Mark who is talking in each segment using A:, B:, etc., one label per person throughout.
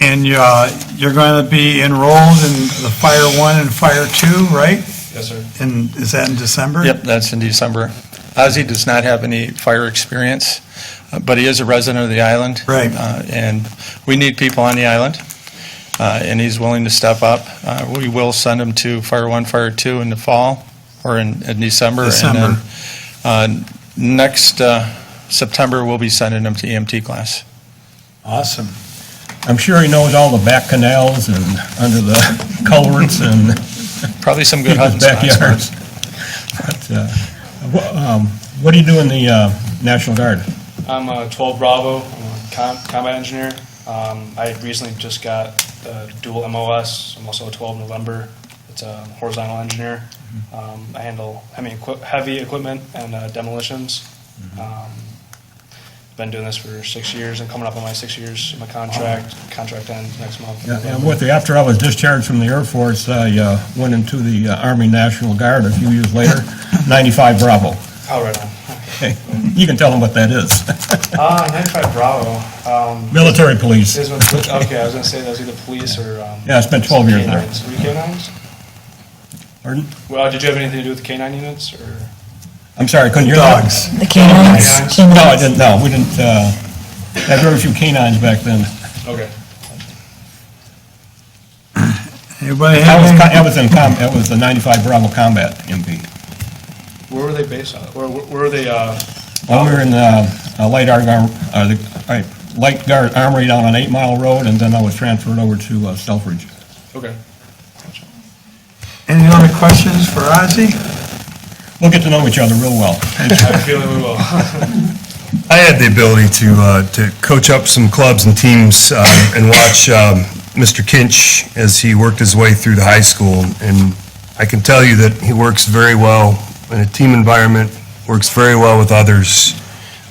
A: And you, uh, you're going to be enrolled in the Fire One and Fire Two, right?
B: Yes, sir.
A: And is that in December?
C: Yep, that's in December. Ozzy does not have any fire experience, uh, but he is a resident of the island.
A: Right.
C: Uh, And we need people on the island, uh, and he's willing to step up. Uh, We will send him to Fire One, Fire Two in the fall, or in in December.
A: December.
C: And then uh, next uh, September, we'll be sending him to EMT class.
D: Awesome. I'm sure he knows all the back canals and under the culverts and
C: Probably some good hunting
D: people's
C: spots. for him.
D: backyards. But, uh, wha- um, What do you do in the uh, National Guard?
B: I'm uh, 12 Bravo, I'm a com- combat engineer. Um, I recently just got the dual MOS, I'm also a 12 November. It's a horizontal engineer.
D: Mm-hmm.
B: Um, I handle heavy, equi- heavy equipment and uh, demolitions.
D: Mm-hmm.
B: Um, Been doing this for six years and coming up on my six years, my contract, contract ends next month.
D: Yeah, and with the, after I was discharged from the Air Force, I uh, went into the uh, Army National Guard a few years later, 95 Bravo.
B: Oh, right on.
D: Okay, You can tell them what that is.
B: Ah, 95 Bravo. Um,
D: Military police.
B: Is it- Okay, I was gonna say that was either police or. um,
D: Yeah, I spent 12 years there.
B: K-9s. Were you K-9s?
D: Pardon?
B: Well, did you have anything to do with the K-9 units, or?
D: I'm sorry, I couldn't hear that.
A: Dogs.
E: The canines?
D: Oh No, I didn't, no, we didn't, uh, had very few canines back then.
B: Okay.
A: Anybody
D: I was,
A: have
D: co-
A: any?
D: I was in com, I was the 95 Bravo Combat MP.
B: Where were they based out of? Where, where were they, uh,
D: Well, we were in uh, uh, Light Guard, uh, the, all right, Light Guard Armory down on Eight Mile Road, and then I was transferred over to uh, Selfridge.
B: okay.
A: Any other questions for Ozzy?
D: We'll get to know each other real well.
B: I have a feeling we will.
F: I had the ability to, uh, to coach up some clubs and teams uh, and watch um, Mr. Kinch as he worked his way through the high school. And I can tell you that he works very well in a team environment, works very well with others.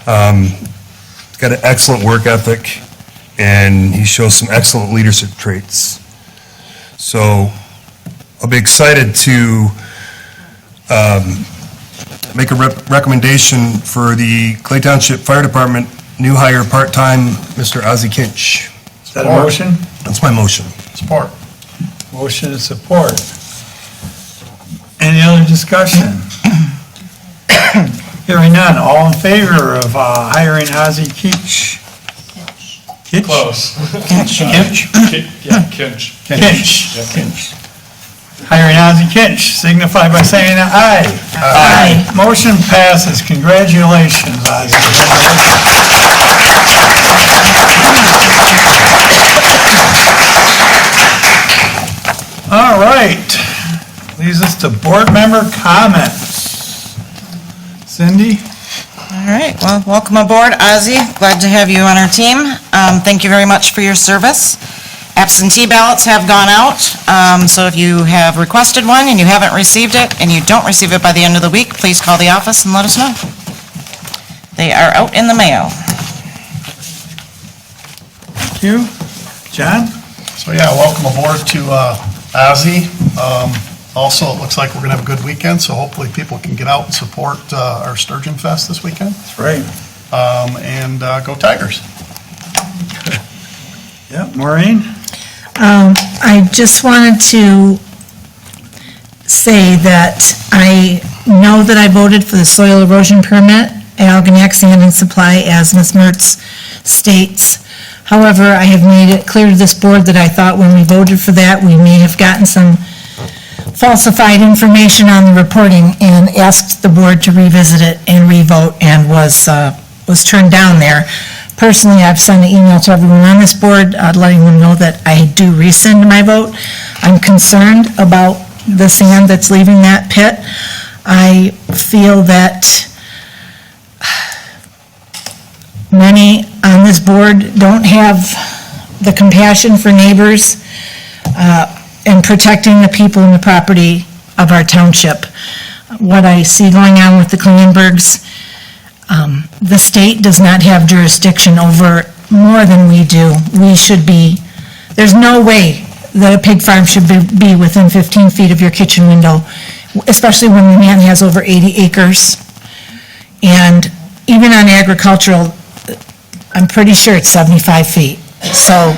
F: Um, He's got an excellent work ethic, and he shows some excellent leadership traits. So I'll be excited to make a rep- recommendation for the Clay Township Fire Department new hire part-time, Mr. Ozzie Kinch.
A: Is that a motion?
F: That's my motion.
A: Support. Motion and support. Any other discussion? Hearing none, all in favor of uh, hiring Ozzie Keach? Kitch?
B: Close.
A: Kitch?
B: Ki- Yeah, Kinch.
A: Kinch. Hiring Ozzie Kinch, signify by saying aye. Aye. Motion passes, congratulations, Ozzie. All right, leads us to board member comments. Cindy?
E: All right, well, welcome aboard, Ozzy. Glad to have you on our team. Um, Thank you very much for your service. Absentee ballots have gone out, um, so if you have requested one and you haven't received it, and you don't receive it by the end of the week, please call the office and let us know. They are out in the mail.
A: You? John?
G: So yeah, welcome aboard to uh, Ozzy. Um, Also, it looks like we're going to have a good weekend, so hopefully people can get out and support uh, our Sturgeon Fest this weekend.
A: That's right.
G: Um, And uh, go Tigers.
A: Yep, Maureen?
H: Um, I just wanted to say that I know that I voted for the soil erosion permit at Algonac Sand and Supply, as Ms. Mertz states. However, I have made it clear to this board that I thought when we voted for that, we may have gotten some falsified information on the reporting and asked the board to revisit it and revote and was, uh, was turned down there. Personally, I've sent an email to everyone on this board, uh, letting them know that I do rescind my vote. I'm concerned about the sand that's leaving that pit. I feel that many on this board don't have the compassion for neighbors uh, and protecting the people and the property of our township. What I see going on with the Klingenbergs, um, the state does not have jurisdiction over more than we do. We should be, there's no way that a pig farm should be- be within 15 feet of your kitchen window, especially when the man has over 80 acres. And even on agricultural, I'm pretty sure it's 75 feet. So